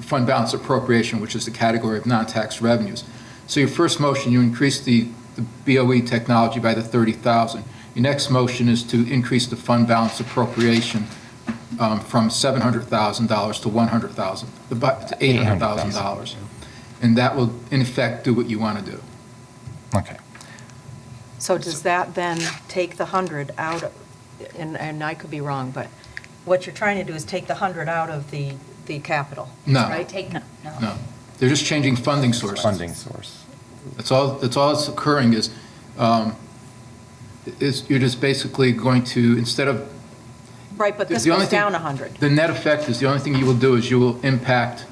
fund balance appropriation, which is the category of non-tax revenues. So your first motion, you increase the the BOE technology by the 30,000. Your next motion is to increase the fund balance appropriation um, from $700,000 to 100,000, the bu- to $800,000. And that will, in effect, do what you want to do. Okay. So does that then take the 100 out, of- and, and I could be wrong, but what you're trying to do is take the 100 out of the, the capital? No. Right? Take, no. No, they're just changing funding sources. Funding source. That's all, that's all that's occurring is, um, is you're just basically going to, instead of, Right, but this The only goes thing- down 100. the net effect is, the only thing you will do is you will impact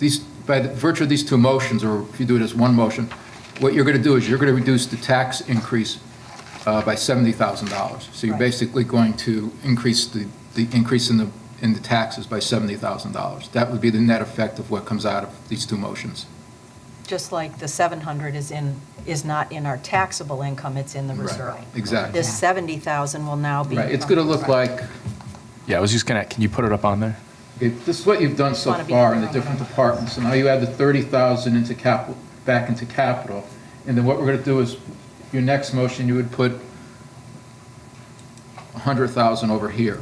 these, by the virtue of these two motions, or if you do it as one motion, what you're going to do is you're going to reduce the tax increase uh, by $70,000. So you're Right. basically going to increase the, the increase in the, in the taxes by $70,000. That would be the net effect of what comes out of these two motions. Just like the 700 is in, is not in our taxable income, it's in the Right. reserve. Exactly. This 70,000 will now be. Right, it's going to look like, Yeah, I was just gonna, can you put it up on there? it- this is what you've done so Wanna be- far in the different departments, and now you add the 30,000 into capital, back into capital, and then what we're going to do is, your next motion, you would put 100,000 over here.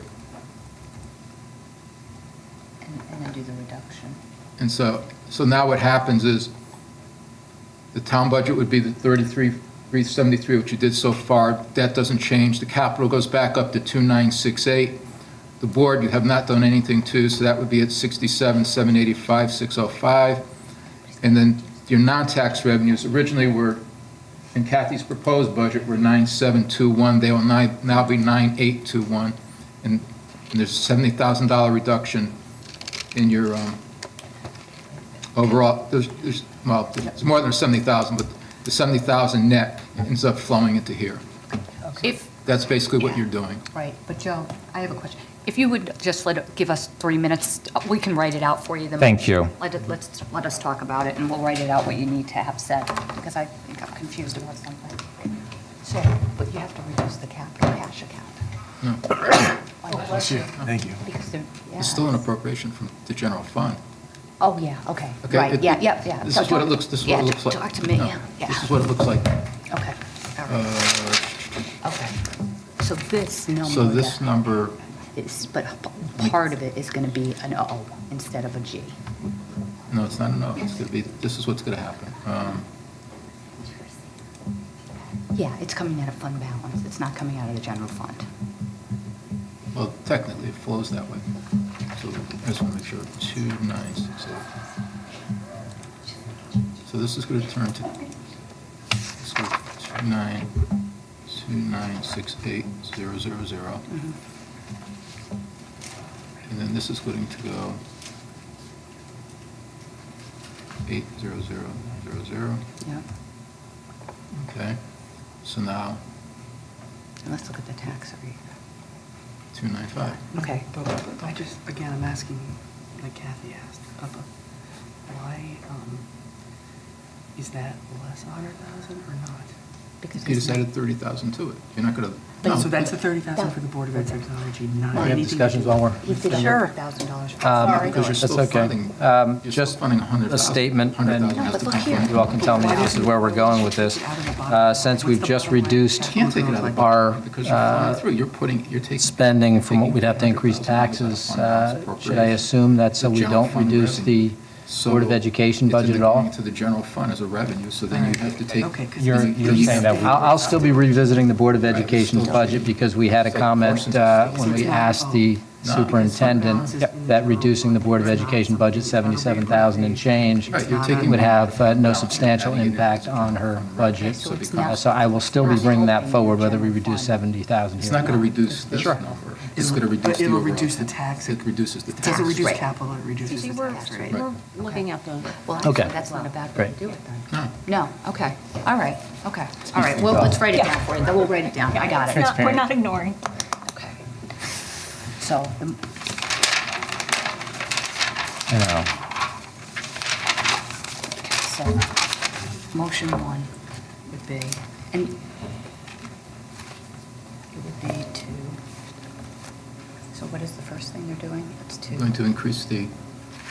And and then do the reduction. And so, so now what happens is, the town budget would be the 33, 373, which you did so far, that doesn't change, the capital goes back up to 2968. The board, you have not done anything to, so that would be at 67, 785, 605. And then your non-tax revenues originally were, in Kathy's proposed budget, were 9721, they will ni- now be 9821. And and there's a $70,000 reduction in your um, overall, there's, there's, well, it's more than 70,000, but the 70,000 net ends up flowing into here. If, That's basically what you're doing. right, but Joe, I have a question. If you would just let, give us three minutes, we can write it out for you. the- Thank you. Let it, let's, let us talk about it, and we'll write it out what you need to have said, because I think I'm confused about something. So, but you have to reduce the capital cash account. Thank you. Because they're, yeah. It's still an appropriation from the general fund. Oh, yeah, okay, Okay, right, it- yeah, yeah, yeah. This So is what it talk- looks, this is what yeah, it looks like. Talk to me, No, yeah, yeah. This is what it looks like. Uh, Okay, all right, okay. So this number. So this that- number, is, but p- part of it is going to be an O instead of a G. no, it's not enough. It's going to be, this is what's going to happen. Um, Yeah, it's coming out of fund balance, it's not coming out of the general fund. Well, technically, it flows that way. So I just want to make sure, 2968. So this is going to turn to, let's go 29, 2968, 000. Mm-hmm. And then this is going to go 80000, Yeah, okay? So now, and let's look at the tax rate. 295. Okay. But I just, again, I'm asking, like Kathy asked, about why um, is that less a hundred thousand or not? You just added 30,000 to it. You're not going to. No. So that's the thirty thousand for the Board of Ed technology, not anything. we're. He did a Sure. hundred thousand dollars. Um, Because you're That's still okay. funding, Um, you're still just funding 100,000. a statement, and- 100,000 No, has but to look come from- here. You all can tell me this is where we're going with this. Uh, Since we've just You reduced Can't take it out of the our uh, budget because you're funding through, you're putting, you're taking. spending from what taking we'd have to increase 100,000 out of the taxes, fund balance uh, should I appropriation. assume that so The we general don't fund reduce revenue. the Board of So Education it's in the- budget at all? going To the general fund as a revenue, so then you have to take. Okay, 'cause You're, this- you're saying that, I'll, I'll still be revisiting the Board of Education's budget because we had a comment uh, when we asked the superintendent that reducing the Board of Education budget 77,000 and change Right, you're taking- would have uh, no substantial impact on her budget. So it's not- Uh, So I will still be bringing that forward whether we reduce 70,000 It's here. not or going to reduce this Sure. number. It's going to reduce the But it'll overall reduce the tax. tax. It reduces the tax. Doesn't reduce Right. capital, it reduces See, the we're, tax rate. we're looking at the, Well, Okay. actually, that's not a bad way to Great. do it then. No. No, okay, all right, okay, all right, well, let's write it down for you, then we'll write it down, I got it. not- We're not ignoring. Okay. So, um, the- You know, so, motion one would be, and it would be to, so what is the first thing they're doing? It's to. Going to increase the